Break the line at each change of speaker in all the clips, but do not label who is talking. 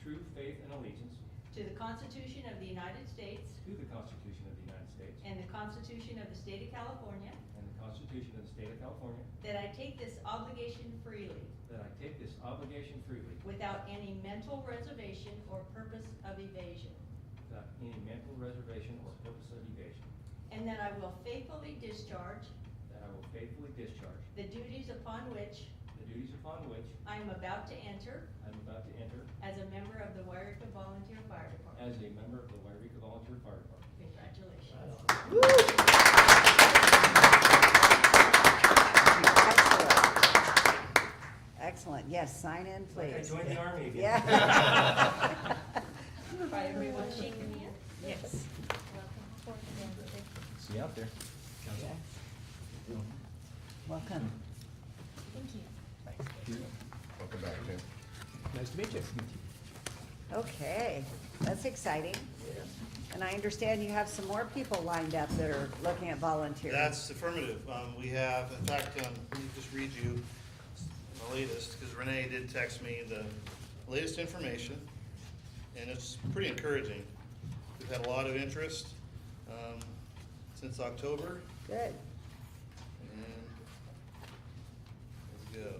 true faith and allegiance
to the Constitution of the United States
to the Constitution of the United States
and the Constitution of the State of California,
and the Constitution of the State of California,
that I take this obligation freely
that I take this obligation freely
without any mental reservation or purpose of evasion,
without any mental reservation or purpose of evasion,
and that I will faithfully discharge
that I will faithfully discharge
the duties upon which
the duties upon which
I am about to enter
I am about to enter
as a member of the Waireka Volunteer Fire Department.
as a member of the Wairega Volunteer Fire Department.
Congratulations.
Excellent. Excellent, yes, sign in,
like I
please.
joined the army again.
Yeah.
By everyone shaking hands?
Yes.
See you out there.
Yeah. Welcome.
Welcome back, Tim.
Nice to meet you.
Okay, that's exciting. And I understand you have some more people lined up that are looking at volunteering.
That's affirmative. Um, we have, in fact, um, let me just read you the latest, because Renee did text me the latest information, and it's pretty encouraging. We've had a lot of interest, um, since October,
Good.
and let's go.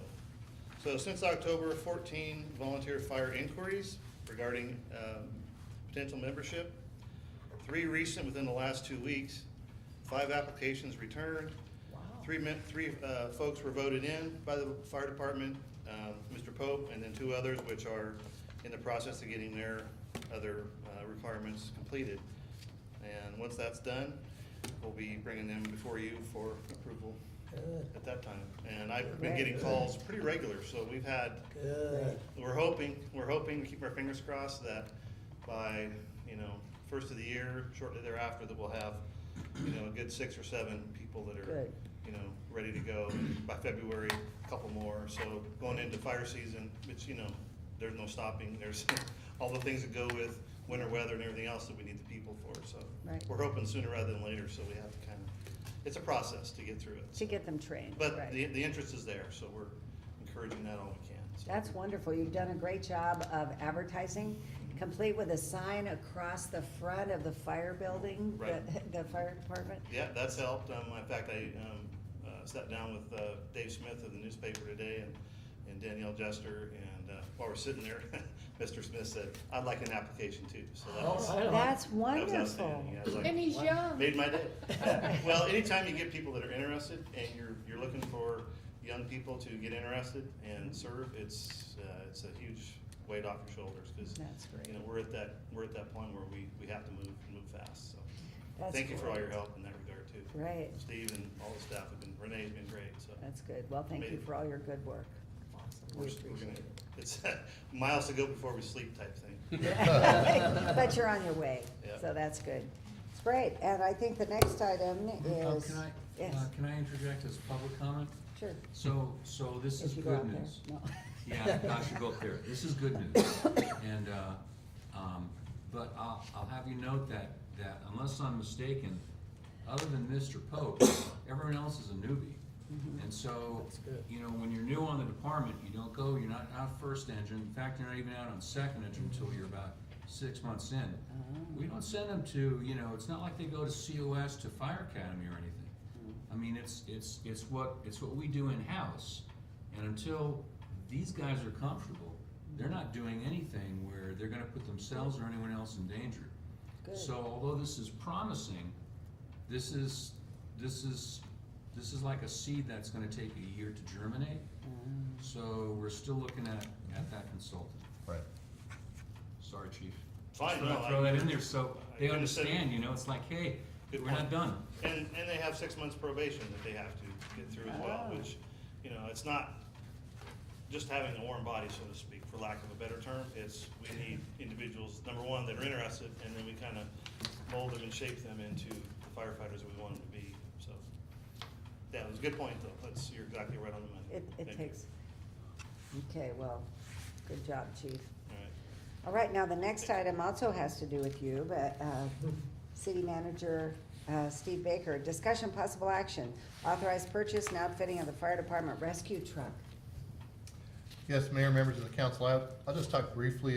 So since October, fourteen volunteer fire inquiries regarding um, potential membership. Three recent within the last two weeks, five applications returned. Three men, three uh, folks were voted in by the fire department, um, Mr. Pope, and then two others which are in the process of getting their other uh, requirements completed. And once that's done, we'll be bringing them before you for approval at that time. And I've been getting calls pretty regular, so we've had,
Good.
we're hoping, we're hoping, keep our fingers crossed that by, you know, first of the year, shortly thereafter, that we'll have, you know, a good six or seven people that are,
Good.
you know, ready to go. By February, a couple more, so going into fire season, it's, you know, there's no stopping, there's all the things that go with winter weather and everything else that we need the people for, so.
Right.
We're hoping sooner rather than later, so we have to kind of, it's a process to get through it.
To
so.
get them trained,
But the,
right.
the interest is there, so we're encouraging that all we can. so.
That's wonderful. You've done a great job of advertising, complete with a sign across the front of the fire building,
Right.
the, the fire department.
Yeah, that's helped. Um, in fact, I, um, uh, sat down with, uh, Dave Smith of the newspaper today and, and Danielle Jester, and, uh, while we're sitting there, Mr. Smith said, I'd like an application too, so that
Oh,
was. that
That's
was
wonderful.
outstanding. Yeah, I was like,
And he's young.
Made my day. Well, anytime you get people that are interested and you're, you're looking for young people to get interested
Mm-hmm.
and serve, it's, uh, it's a huge weight off your shoulders, cause.
That's
You
great.
know, we're at that, we're at that point where we, we have to move, and move fast, so.
That's
Thank you for all your
great.
help in that regard too.
Right.
Steve and all the staff have been, Renee's been great, so.
That's good. Well, thank you for all your good work.
We're-
We
we're gonna-
appreciate it.
It's miles to go before we sleep type thing.
But you're on your way,
Yeah.
so that's good. It's great, and I think the next item
Oh,
is,
can I,
yes,
uh, can I interject as public comment?
sure.
So, so this is
If you go
good
out there,
news.
no.
Yeah, I should go up there. This is good news. And, uh, um, but I'll, I'll have you note that, that unless I'm mistaken, other than Mr. Pope, everyone else is a newbie.
Mm-hmm.
And so, you know, when you're new on the department, you don't go, you're not out first engine. In fact, you're not even out on second engine
Mm-hmm.
until you're about six months in.
Ah.
We don't send them to, you know, it's not like they go to COS to Fire Academy or anything. I mean, it's, it's, it's what, it's what we do in-house. And until these guys are comfortable, they're not doing anything where they're gonna put themselves or anyone else in danger.
Good.
So although this is promising, this is, this is, this is like a seed that's gonna take a year to germinate. So we're still looking at, at that consultant.
Right.
Sorry, chief.
Fine,
Just thought I'd
no, I-
Throw that in there so they
I understand.
understand, you know, it's like, hey,
Good
we're not
point.
done.
And, and they have six months probation that they have to get through as well,
Ah.
which, you know, it's not just having a warm body, so to speak, for lack of a better term. It's, we need individuals, number one, that are interested, and then we kind of mold them and shape them into the firefighters that we want them to be, so. That was a good point, though. That's, you're exactly right on the money.
It, it
Thank you.
takes, okay, well, good job, chief.
All right.
All right, now the next item also has to do with you, but, uh, city manager, uh, Steve Baker, discussion possible action, authorized purchase and outfitting of the fire department rescue truck.
Yes, Mayor, members of the council, I- I'll just talk briefly